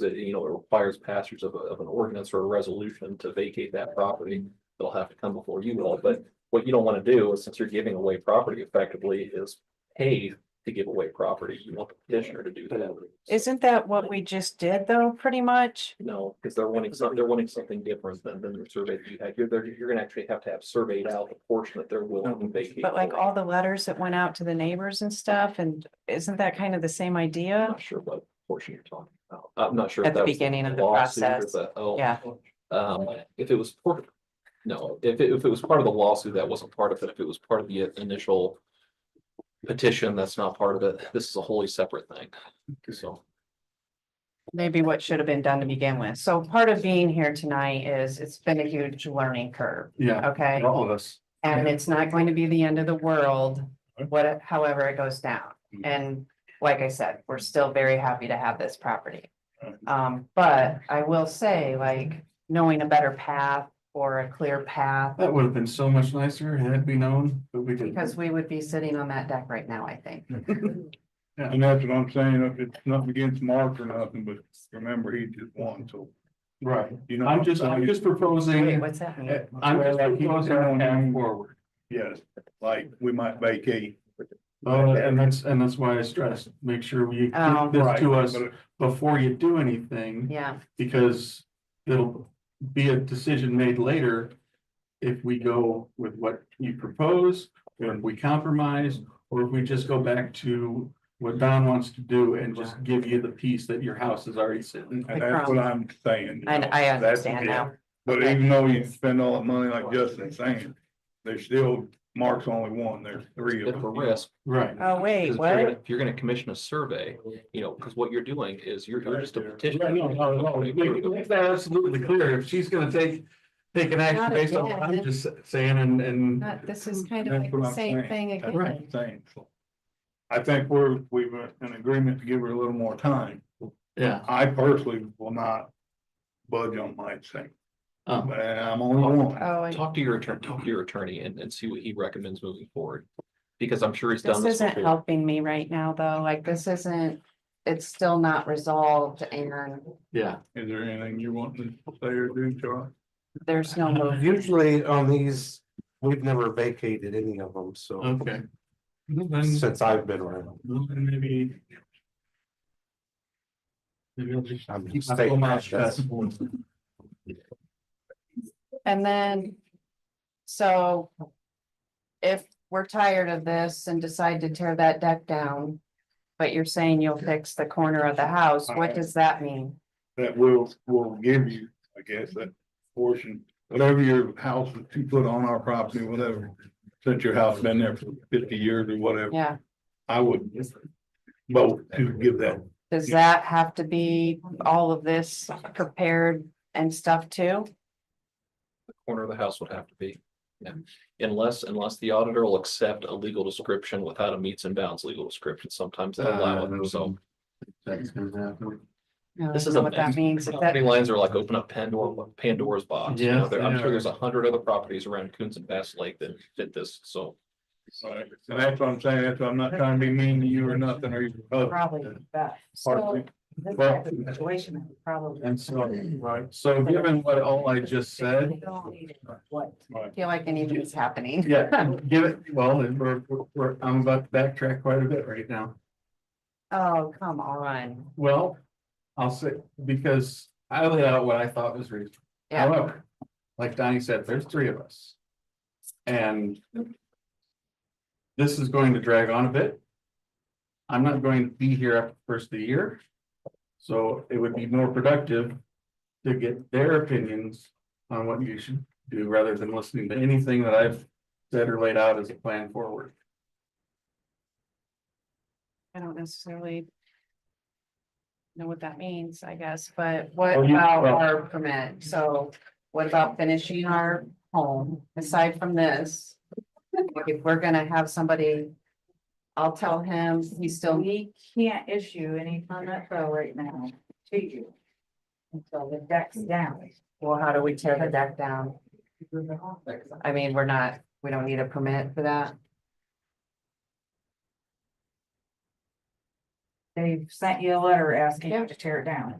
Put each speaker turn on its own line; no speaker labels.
that, you know, it requires passage of, a- of an ordinance or a resolution to vacate that property. It'll have to come before you all, but what you don't want to do is since you're giving away property effectively is pay to give away property. You want the petitioner to do that.
Isn't that what we just did though, pretty much?
No, because they're wanting some, they're wanting something different than, than the survey that you had. You're, they're- you're gonna actually have to have surveyed out the portion that they're willing to vacate.
But like all the letters that went out to the neighbors and stuff, and isn't that kind of the same
I'm
idea?
not sure what portion you're talking about. I'm not sure. if
At the
that was
beginning of the
lawsuit or
process,
the- Oh.
yeah.
Um, if it was part, no, if it, if it was part of the lawsuit, that wasn't part of it. If it was part of the initial petition, that's not part of it. This is a wholly separate thing. So,
maybe what should have been done to begin with. So part of being here tonight is it's been a huge learning curve,
Yeah,
okay?
for all of us.
And it's not going to be the end of the world, what, however it goes down.
Mhm.
And like I said, we're still very happy to have this property. Um, but I will say, like, knowing a better path or a clear path,
That would have been so much nicer had we known, but we didn't.
because we would be sitting on that deck right now, I think.
And that's what I'm saying, if it's nothing against Mark or nothing, but remember, he just won, so,
Right,
you know.
I'm just, I'm just proposing, eh,
Wait, what's that mean?
Mm-hmm. I'm just proposing a path forward.
Yes, like, we might vacate.
Uh, and that's, and that's why I stressed, make sure we
Oh.
get this to us
But
before you do anything,
Yeah,
because it'll be a decision made later. If we go with what you propose, or if we compromise, or if we just go back to what Don wants to do and just give you the piece that your house is already sitting.
And that's what I'm saying. you
I,
know,
I
that's-
understand now.
But even though you spend all that money like Justin's saying, there's still, Mark's only one, there's three of
it's a
them.
risk,
Right.
Oh, wait,
Because if you're gonna-
what?
If you're gonna commission a survey, you know, because what you're doing is you're, you're just a petition.
Right, no, no, no, make- make that absolutely clear, if she's gonna take, take an action based on what I'm just saying and, and.
Not- This is kind of
That's
like
what
the
I'm
same
saying.
thing
That's what I'm
again.
saying. So, I think we're, we've uh, an agreement to give her a little more time.
Yeah,
I personally will not budge on my thing,
um,
but I'm only one.
Oh, I-
Talk to your attorney, talk to your attorney and, and see what he recommends moving forward. Because I'm sure he's done
this
this
isn't
before.
helping me right now, though. Like, this isn't, it's still not resolved and
yeah,
Is there anything you want to say or do, Charlie?
there's no move.
Usually on these, we've never vacated any of them, so
okay. Well, Then,
since I've been around.
well, then maybe. Maybe I'll just
I'm
keep my
staying
full mouth
cautious.
shut.
And then, so if we're tired of this and decide to tear that deck down, but you're saying you'll fix the corner of the house, what does that mean?
That will, will give you, I guess, that portion, whatever your house that you put on our property, whatever. Since your house been there for fifty years or whatever,
Yeah,
I would vote to give that.
does that have to be all of this prepared and stuff too?
Corner of the house would have to be. Yeah. Unless, unless the auditor will accept a legal description without a meets and bounds legal description, sometimes they allow it.
Uh,
So
That's gonna happen.
I don't
This is
know
a
What that
mess.
means, if that,
property lines are like open up Pandora, Pandora's box. You know,
Yes,
there- I'm
they
sure
are.
there's a hundred other properties around Coons and Bass Lake that fit this. So
Right, and that's what I'm saying, that's what I'm not trying to be mean to you or nothing, or you.
probably, that, so. This type of situation I would probably.
And so, right, so given what all I just said,
What? Feel like anything's happening.
yeah, give it, well, and we're, we're- we're, I'm about to backtrack quite a bit right now.
Oh, come on.
Well, I'll say, because I laid out what I thought was reasonable.
Yeah,
However, like Donnie said, there's three of us. And this is going to drag on a bit. I'm not going to be here after the first of the year. So it would be more productive to get their opinions on what you should do rather than listening to anything that I've said or laid out as a plan forward.
I don't necessarily. Know what that means, I guess, but what
Well, you-
about
well-
our permit? So what about finishing our home aside from this? like, If we're gonna have somebody, I'll tell him he still.
We can't issue any permit though right now to you. Until the deck's down.
Well, how do we tear the deck down? I mean, we're not, we don't need a permit for that. they've sent you a letter asking
Yeah.
you to tear it down.